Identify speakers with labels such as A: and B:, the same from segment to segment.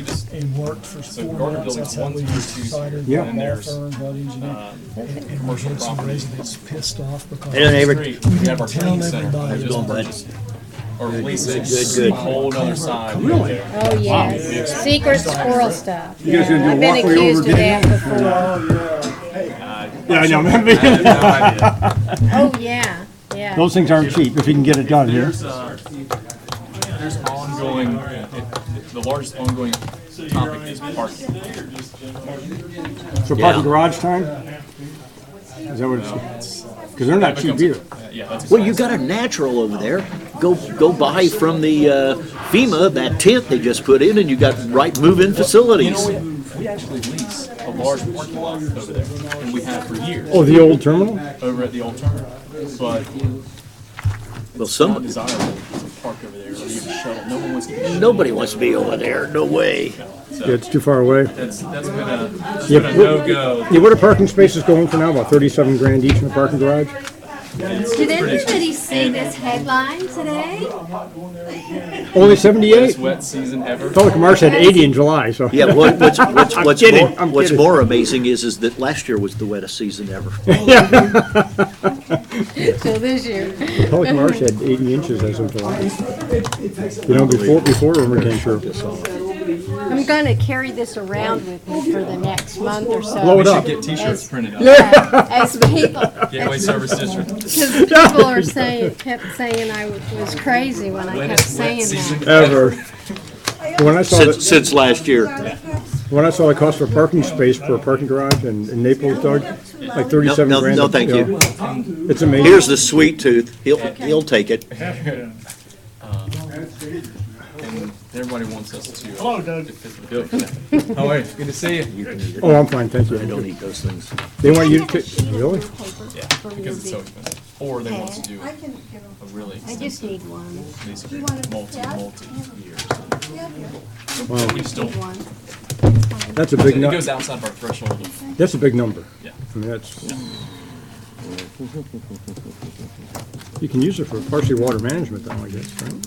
A: they worked for
B: So
A: four
B: garden
A: months,
B: buildings
A: that's how
B: one
A: we
B: through two
A: decided.
B: here,
A: we're
B: and
A: law
B: there's,
A: firm, Bud engineer.
B: uh,
A: And and we
B: commercial
A: had some
B: property.
A: residents pissed off because.
C: Hey, neighbor.
B: Three, we have our
A: Tell
B: training center.
A: everybody.
B: which is
A: Going, bud.
B: just- Or leasing,
C: good, good.
B: a whole other side. Really?
D: Oh, yes, secret squirrel stuff. You
E: guys gonna do a
D: I've
E: walkway
D: been
E: over
D: accused of
E: Denny?
D: that before.
E: Yeah, I know.
D: Oh, yeah, yeah.
E: Those things aren't cheap if you can get it done, yeah.
B: There's, uh, there's ongoing, it- the largest ongoing topic is parking.
E: So parking garage time? Is that what it's, because they're not cheap
B: Becomes-
E: either.
B: Yeah, that's.
C: Well, you got a natural over there. Go go buy from the uh, FEMA that tent they just put in, and you got right move-in
B: You
C: facilities.
B: know, we, we actually lease a large parking lot over there, and we have for years,
E: Oh, the old terminal?
B: over at the old terminal. But
C: well,
B: it's not
C: some
B: desirable to park over there or even shuttle. No one wants to. get
C: nobody wants to be over there. No way.
E: Yeah, it's too far away.
B: That's, that's been a, that's
E: Yeah,
B: been a
E: what-
B: no-go.
E: Yeah, what are parking spaces going for now? About thirty-seven grand each in the parking garage?
F: Did everybody see this headline today?
E: Only
B: Best
E: seventy-eight?
B: wet season ever.
E: Public Marsh had eighty in July, so.
C: Yeah. What, what's what's what's,
E: kidding,
C: more,
E: I'm
C: what's
E: kidding.
C: more amazing is is that last year was the wettest season ever.
D: So this year,
E: Public Marsh had eighty inches as of July. You know, before, before Irma came through.
D: I'm gonna carry this around with me for the next month or so.
E: Blow
B: We
E: it up.
B: should get t-shirts
D: As-
B: printed up.
D: Yeah, As people,
B: Gateway Service District.
D: because people are saying, kept saying I was crazy when I kept
B: Wettest wet
D: saying
B: season
D: that.
E: Ever. When I saw that.
C: Since since last year,
E: When I saw the cost for a parking space for a parking garage in in Naples, Doug, like
C: no,
E: thirty-seven
C: no,
E: grand.
C: no, thank you.
E: know, It's amazing.
C: Here's the sweet tooth. He'll he'll take it.
B: And everybody wants us to. Hello, Doug. How are you? Oh, Good to see you.
E: Oh, I'm fine, thank
C: I don't
E: you.
C: eat those things.
E: They want you to, ta- really?
B: Yeah, because it's so expensive. Or they want us to do a really
D: I
B: extensive
D: just need one.
B: lease agreement, multi, multi years. We still, it
E: That's a big nu,
B: goes outside of our threshold of,
E: that's a big number.
B: yeah.
E: I mean, that's. You can use it for partially water management though, I guess, right?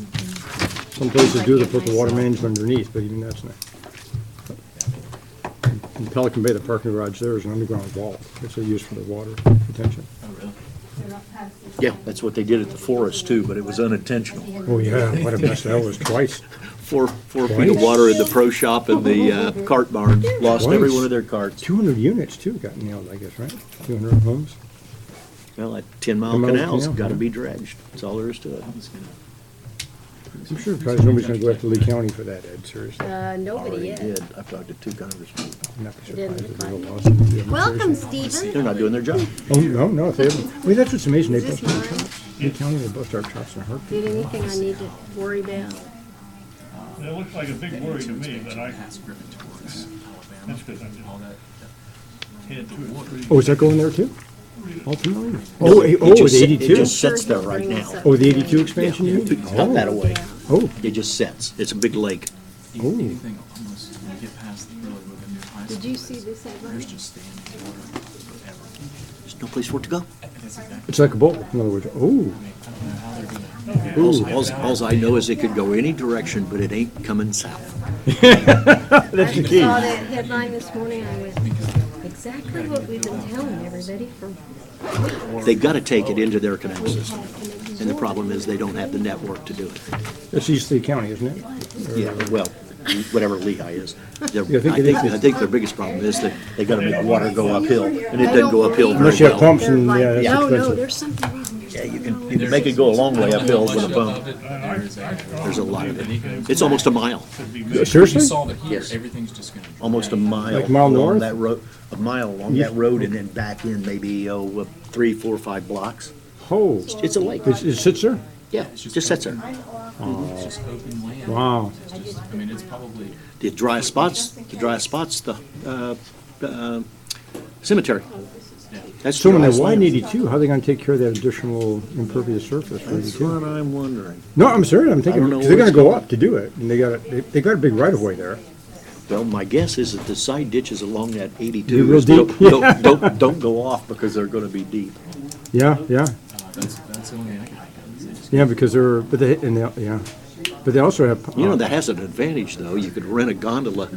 E: Some places do, they put the water management underneath, but even that's not. In Pelican Bay, the parking garage there is an underground vault. It's a use for the water retention.
B: Oh, really?
C: Yeah, that's what they did at the forest too, but it was unintentional.
E: Oh, yeah, what a mess that was twice.
C: Four four feet of water in the pro shop and the uh, cart barn lost every one of their carts.
E: Two hundred units too got nailed, I guess, right? Two hundred homes.
C: Well, that ten mile
E: Ten mile
C: canal's
E: canal,
C: got to
E: yeah.
C: be dredged. That's all there is to it.
E: I'm sure probably nobody's gonna go after Lee County for that, Ed, seriously.
D: Uh, nobody
C: Already
D: is.
C: did. I've talked to two congressmen.
E: I'm not
D: Didn't
E: surprised if
D: look
E: there's a
D: like
E: lawsuit. Yeah, I'm
F: Welcome,
E: serious.
F: Stephen.
C: They're not doing their job.
E: Oh, no, no, if they haven't, well, that's what's amazing, they
D: Is this
E: bust our chops. Lee County, they bust our chops in a heartbeat.
D: Did anything I need to worry about?
G: That looks like a big worry to me, but I
B: Pass Griffin towards Alabama,
G: that's because I'm just
B: all that.
G: head to
E: Oh, is that going there too? Ultimately?
C: No,
E: Oh, eh,
C: it
E: oh,
C: just
E: the
C: sit- It
E: eighty-two?
C: just sits there right now.
E: Oh, the eighty-two expansion you mean?
C: Out that away.
E: Oh,
C: It just sits. It's a big lake.
B: You
E: Ooh.
B: can anything almost, when you get past the really with a new high school.
D: Did you see this headline?
B: There's just standing water forever.
C: There's no place for it to go.
B: That's exactly,
E: it's like a boat, in other words. Oh,
B: I don't know how they're gonna.
C: Alls, alls- alls I know is it could go any direction, but it ain't coming south.
E: that's the
D: I
E: key.
D: saw that headline this morning, I went, exactly what we've been telling everybody for,
C: They've got to take it into their canal system. And the problem is they don't have the network to do it.
E: That's East Lee County, isn't it? Or-
C: Yeah, well, whatever Lehigh is. Their-
E: Yeah, I think
C: I
E: it
C: think,
E: is.
C: I think their biggest problem is that they gotta make water go uphill, and it doesn't go uphill
E: Unless
C: very
E: you have
C: well.
E: pumps and, yeah, that's
D: no, no,
E: expensive.
D: there's something.
C: Yeah, you can, you can make it go a long way uphill with a pump. There's a lot of it. It's almost a mile,
B: You
E: Uh, Seriously?
B: solve it here, everything's just gonna.
C: almost a
B: drain.
C: mile.
E: Like mile
C: along
E: north?
C: That road, a mile along that road and then back in maybe, oh, uh, three, four, five blocks.
E: Oh,
C: It's a lake.
E: it it sits there?
C: Yeah, it just sits there.
B: It's just open land.
E: Wow.
B: It's just, I mean, it's probably,
C: The dry spots, the dry spots, the, uh, uh, cemetery. That's
E: So when
C: dry
E: they widen
C: land.
E: eighty-two, how are they gonna take care of that additional impervious surface for
C: That's
E: eighty-two?
C: what I'm wondering.
E: No, I'm serious, I'm thinking,
C: I don't know
E: 'cause they're
C: where
E: gonna
C: it's
E: go up to do it, and they got, a- they, they got a big right-of-way there.
C: Well, my guess is that the side ditches along that
E: Be
C: eighty-two
E: real
C: is don't,
E: deep.
C: don't, don't, don't go off because they're gonna be deep.
E: Yeah, yeah,
B: uh, that's, that's the only thing I can think of. is they just-
E: yeah, because they're, but they, and they, yeah, but they also have.
C: You know,
E: uh,
C: that has an advantage, though. You could rent a gondola